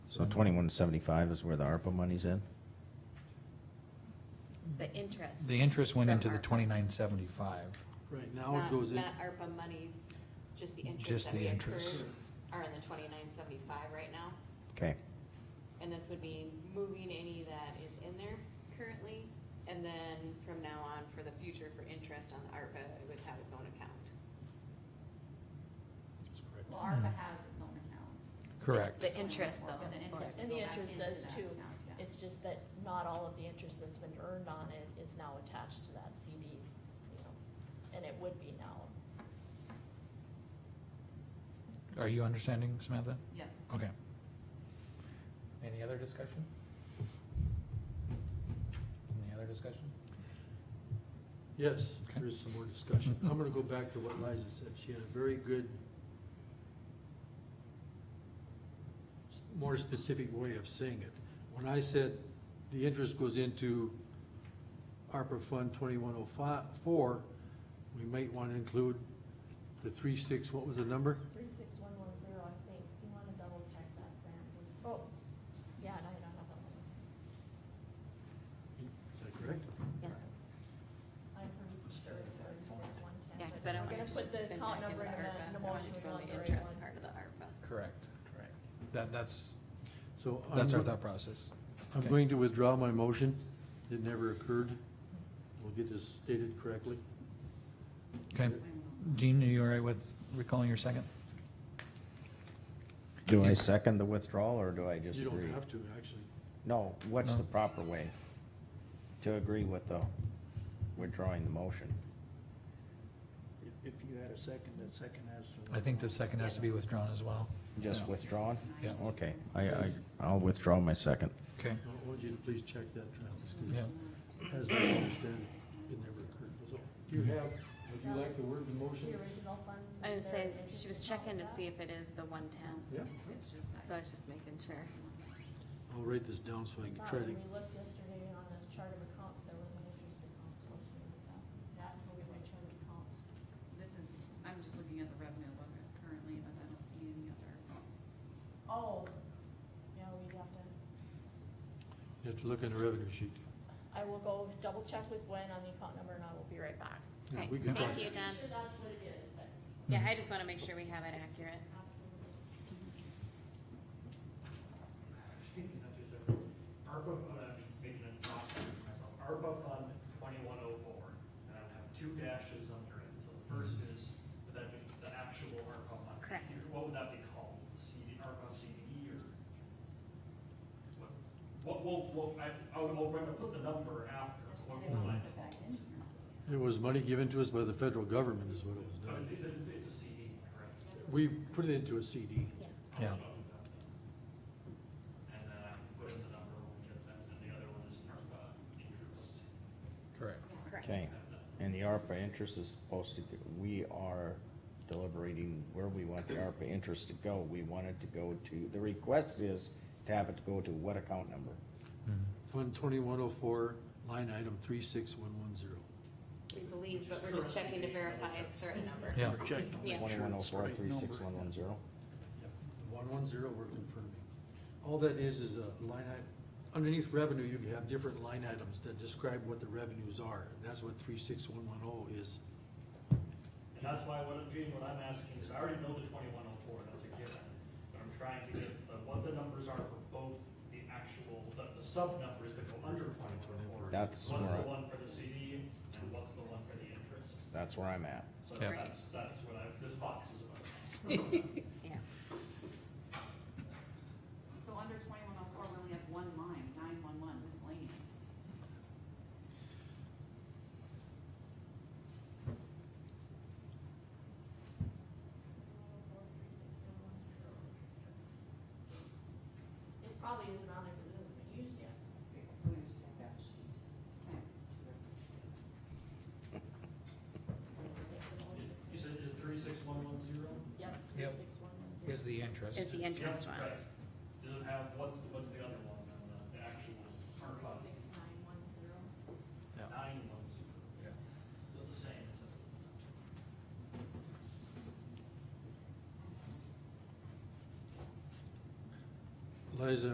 So twenty-one seventy-five is where the ARPA money's in? The interest. The interest went from into the ARPA. twenty-nine seventy-five. Right now it Not- goes in, Not ARPA monies, just the Just interest that the we interest. accrued are in the twenty-nine seventy-five right now. Okay, And this would be moving any that is in there currently, and then from now on, for the future, for interest on the ARPA, it would have its own account. Well, ARPA has its own account. Correct. The interest though. The interest. And go the back interest into does that too. account, yeah. It's just that not all of the interest that's been earned on it is now attached to that CD, you know, and it would be now. Are you understanding, Samantha? Yeah. Okay. Any other discussion? Any other discussion? yes, Okay. Mm-hmm. there is some more discussion. I'm gonna go back to what Liza said. She had a very good, s- more specific way of saying it. When I said the interest goes into ARPA Fund twenty-one oh five, four, we might wanna include the three, six, what was the number? Three six one one zero, I think, you wanna double check that, Sam, oh, yeah, no, you don't have that one. Is that correct? I heard thirty-six one ten. Yeah, cause I don't want to just spend back in the ARPA, I want it to go in the interest part of the ARPA. Correct. Correct. That, that's, So I'm that's our go- thought process. I'm Okay. going to withdraw my motion. It never occurred. We'll get this stated correctly. Okay. Jean, are you all right with recalling your second? do I second the withdrawal, or do I just You agree? don't have to, actually. No, what's No. the proper way to agree with the withdrawing the motion? If- If you had a second, that second has to. I think the second has to be withdrawn as well. Just Yeah. withdrawn? Yeah. Okay, I, I, I'll withdraw my second. Okay. I want you to please check that, Travis, Yeah. because as I understand, it never occurred. That's all. Do you have, would you like the word in motion? The original funds. I and was their saying, interest she was and all checking to that. see if it is the one-ten, Yeah, It's just that. so I was just making sure. I'll write this down so I can Thought try to, when we looked yesterday on the chart of accounts, there was an interest account associated with that, that will be my chart of accounts. This is, I'm just looking at the revenue book currently, but I don't see any other. Oh, yeah, we have to, you have to look in the revenue sheet. I will go double check with Gwen on the account number and I will be right back. Yeah, Right. we can Thank talk. you, Don. Sure that's what it is, but Yeah, I just wanna make sure we have it accurate. absolutely. ARPA, I'm making a top myself, ARPA Fund twenty-one oh four, and I have two dashes under it, so the first is, would that be the actual ARPA money? Correct. here? What would that be called, CD, ARPA CD or? what- What, well, well, I, I'll, I'll bring up the number after, what, They don't what, put back in It here. was money given to us by the federal government is what it was but done. it's, it's, it's a CD, correct? We put it into a CD. Yeah. And then I put in the number when we get sent, and the other one is ARPA interest. Correct. Correct. Okay, and the ARPA interest is supposed to, go- we are deliberating where we want the ARPA interest to go. We want it to go to, the request is to have it go to what account number? Fund twenty-one oh four, line item three six one one zero. We believe, but we're just checking to verify it's the right number. Yeah. Check. Yeah. Twenty-one oh four, three six one one zero? One one zero, we're confirming. All that is, is a line item, underneath revenue, you have different line items that describe what the revenues are. That's what three six one one oh is. And that's why what, Gene, what I'm asking is, I already know the twenty-one oh four, that's a given, but I'm trying to get the- what the numbers are for both the actual, the, the sub-numbers that go under twenty-one oh four. That's What's the more- one for the CD, and what's the one for the interest? That's where I'm at. So Yeah. that's, that's what I, this box is about. Yeah. So under twenty-one oh four, we only have one line, nine-one-one miscellaneous. It probably isn't on there because it hasn't been used yet. So we just have that sheet. You said three six one one zero? Yep. Yep. 36110. Is the interest. Is the interest one. Does it have, what's, what's the other one, then, the- the actual, our class, 36910. Yeah. nine one zero? Yeah. They're the same. Liza,